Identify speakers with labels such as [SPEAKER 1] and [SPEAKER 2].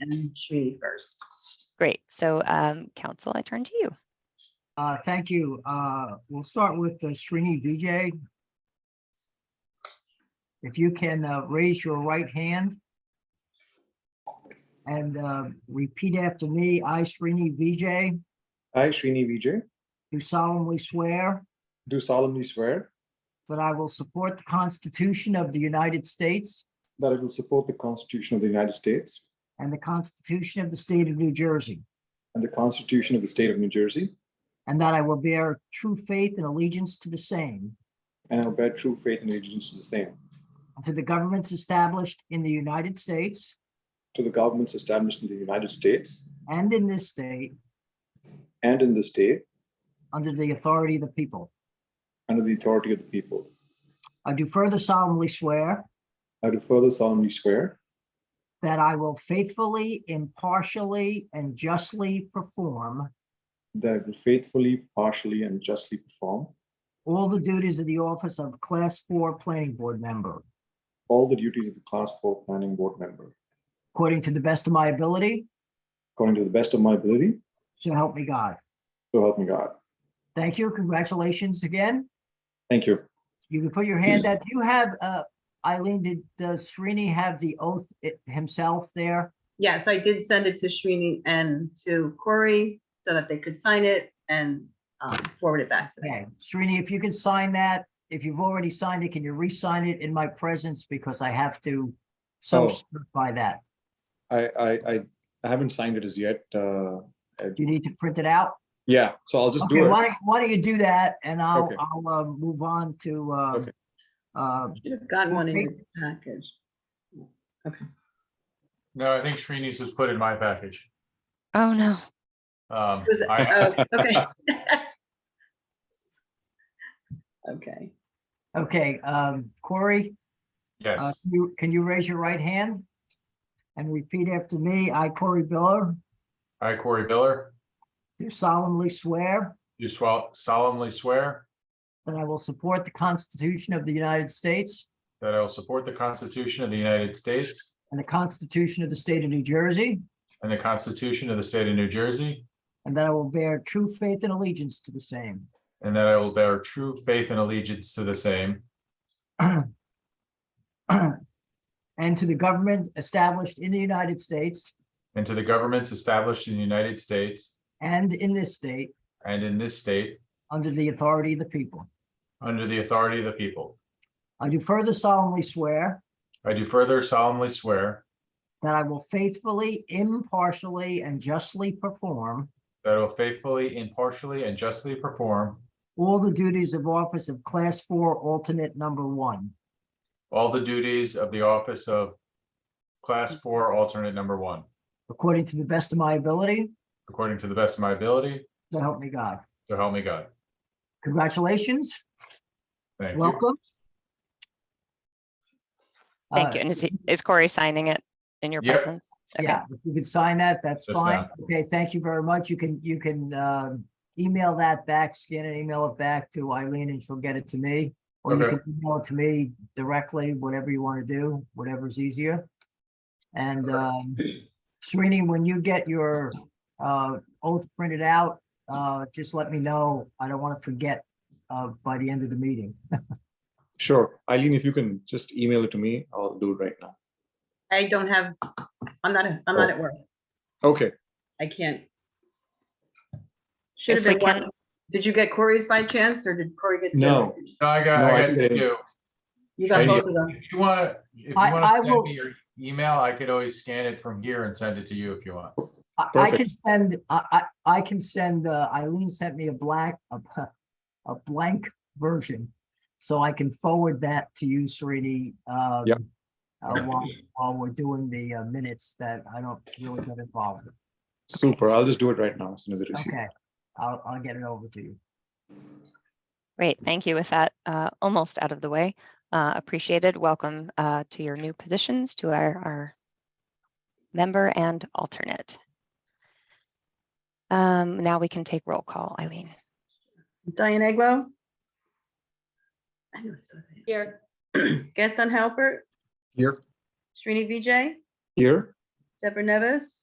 [SPEAKER 1] and Sri first.
[SPEAKER 2] Great. So, um, council, I turn to you.
[SPEAKER 3] Uh, thank you. Uh, we'll start with uh, Srini Vijay. If you can, uh, raise your right hand. And, uh, repeat after me. I, Srini Vijay,
[SPEAKER 4] I, Srini Vijay,
[SPEAKER 3] do solemnly swear
[SPEAKER 4] do solemnly swear
[SPEAKER 3] that I will support the Constitution of the United States
[SPEAKER 4] that I will support the Constitution of the United States
[SPEAKER 3] and the Constitution of the State of New Jersey,
[SPEAKER 4] and the Constitution of the State of New Jersey,
[SPEAKER 3] and that I will bear true faith and allegiance to the same,
[SPEAKER 4] and I will bear true faith and allegiance to the same,
[SPEAKER 3] and to the governments established in the United States
[SPEAKER 4] to the governments established in the United States
[SPEAKER 3] and in this state
[SPEAKER 4] and in this state,
[SPEAKER 3] under the authority of the people.
[SPEAKER 4] under the authority of the people.
[SPEAKER 3] I do further solemnly swear
[SPEAKER 4] I do further solemnly swear
[SPEAKER 3] that I will faithfully, impartially, and justly perform
[SPEAKER 4] that I will faithfully, partially, and justly perform
[SPEAKER 3] all the duties of the office of Class 4 Planning Board Member,
[SPEAKER 4] all the duties of the Class 4 Planning Board member,
[SPEAKER 3] according to the best of my ability,
[SPEAKER 4] according to the best of my ability,
[SPEAKER 3] so help me God.
[SPEAKER 4] so help me God.
[SPEAKER 3] Thank you. Congratulations again.
[SPEAKER 4] Thank you.
[SPEAKER 3] You can put your hand up. Do you have, uh, Eileen, did uh, Srini have the oath i- himself there?
[SPEAKER 1] Yes, I did send it to Srini and to Corey so that they could sign it and um, forward it back to
[SPEAKER 3] Okay,
[SPEAKER 1] them.
[SPEAKER 3] Srini, if you can sign that, if you've already signed it, can you re-sign it in my presence because I have to so
[SPEAKER 4] Oh.
[SPEAKER 3] certify that?
[SPEAKER 4] I, I, I- I haven't signed it as yet. uh, I-
[SPEAKER 3] Do you need to print it out?
[SPEAKER 4] Yeah, so I'll just do
[SPEAKER 3] Okay,
[SPEAKER 4] it.
[SPEAKER 3] why don't, why don't you do that and I'll,
[SPEAKER 4] Okay.
[SPEAKER 3] I'll, uh, move on to, uh,
[SPEAKER 4] Okay.
[SPEAKER 3] uh,
[SPEAKER 1] Should have gotten one in your package.
[SPEAKER 5] No, I think Srini's was put in my package.
[SPEAKER 2] Oh, no.
[SPEAKER 5] Um,
[SPEAKER 1] Was it-
[SPEAKER 5] I,
[SPEAKER 1] oh, Okay. Okay,
[SPEAKER 3] okay, um, Corey, uh,
[SPEAKER 5] yes,
[SPEAKER 3] can you, can you raise your right hand? And repeat after me. I, Corey Biller,
[SPEAKER 5] I, Corey Biller,
[SPEAKER 3] do solemnly swear
[SPEAKER 5] do swal- solemnly swear
[SPEAKER 3] that I will support the Constitution of the United States
[SPEAKER 5] that I will support the Constitution of the United States
[SPEAKER 3] and the Constitution of the State of New Jersey,
[SPEAKER 5] and the Constitution of the State of New Jersey,
[SPEAKER 3] and that I will bear true faith and allegiance to the same,
[SPEAKER 5] and that I will bear true faith and allegiance to the same
[SPEAKER 3] and to the government established in the United States
[SPEAKER 5] and to the governments established in the United States
[SPEAKER 3] and in this state
[SPEAKER 5] and in this state
[SPEAKER 3] under the authority of the people.
[SPEAKER 5] under the authority of the people.
[SPEAKER 3] I do further solemnly swear
[SPEAKER 5] I do further solemnly swear
[SPEAKER 3] that I will faithfully, impartially, and justly perform
[SPEAKER 5] that I will faithfully, impartially, and justly perform
[SPEAKER 3] all the duties of office of Class 4 Alternate Number 1
[SPEAKER 5] all the duties of the office of Class Four Alternate Number One.
[SPEAKER 3] according to the best of my ability,
[SPEAKER 5] According to the best of my ability,
[SPEAKER 3] so help me God.
[SPEAKER 5] so help me God.
[SPEAKER 3] Congratulations,
[SPEAKER 5] Thank you.
[SPEAKER 3] welcome.
[SPEAKER 2] Thank
[SPEAKER 3] Uh,
[SPEAKER 2] you. And is, he- is Corey signing it in your
[SPEAKER 5] Yep.
[SPEAKER 2] presence? Okay.
[SPEAKER 3] Yeah, if you can sign that, that's
[SPEAKER 5] Just
[SPEAKER 3] fine.
[SPEAKER 5] now.
[SPEAKER 3] Okay, thank you very much. You can, you can um, email that back, scan and email it back to Eileen and she'll get it to me. Or you
[SPEAKER 5] Okay.
[SPEAKER 3] can email it to me directly, whatever you want to do, whatever's easier. And um, Srini, when you get your uh, oath printed out, uh, just let me know. I don't want to forget uh, by the end of the meeting.
[SPEAKER 4] Sure. Eileen, if you can just email it to me, I'll do it right now.
[SPEAKER 1] I don't have, I'm not, I'm not at work.
[SPEAKER 4] Okay.
[SPEAKER 1] I can't. Should have
[SPEAKER 2] If we
[SPEAKER 1] been one. Did you get Corey's by chance or did Corey get? two?
[SPEAKER 4] No.
[SPEAKER 5] No, I got,
[SPEAKER 4] No, I
[SPEAKER 5] I got
[SPEAKER 4] didn't.
[SPEAKER 5] you.
[SPEAKER 1] You got
[SPEAKER 4] Shane,
[SPEAKER 1] both of them.
[SPEAKER 5] If you want to, if you
[SPEAKER 3] I- I
[SPEAKER 5] want to
[SPEAKER 3] will-
[SPEAKER 5] send me your email, I could always scan it from here and send it to you if you want.
[SPEAKER 3] I I
[SPEAKER 4] Perfect.
[SPEAKER 3] can send, I, I, I can send, uh, Eileen sent me a black, a, p- a blank version. So I can forward that to you, Srini. um,
[SPEAKER 4] Yep.
[SPEAKER 3] uh, while, while we're doing the uh, minutes that I don't really get involved with.
[SPEAKER 4] Super. I'll just do it right now as soon as it is.
[SPEAKER 3] Okay, I'll, I'll get it over to you.
[SPEAKER 2] Great. Thank you. With that, uh, almost out of the way. Uh, appreciated. Welcome, uh, to your new positions, to our, our member and alternate. Um, now we can take roll call. Eileen.
[SPEAKER 1] Diane Aglo? I knew I saw that.
[SPEAKER 6] Here,
[SPEAKER 1] Gaston Halbert,
[SPEAKER 4] Here.
[SPEAKER 1] Srini Vijay,
[SPEAKER 4] Here.
[SPEAKER 1] Deborah Nevis,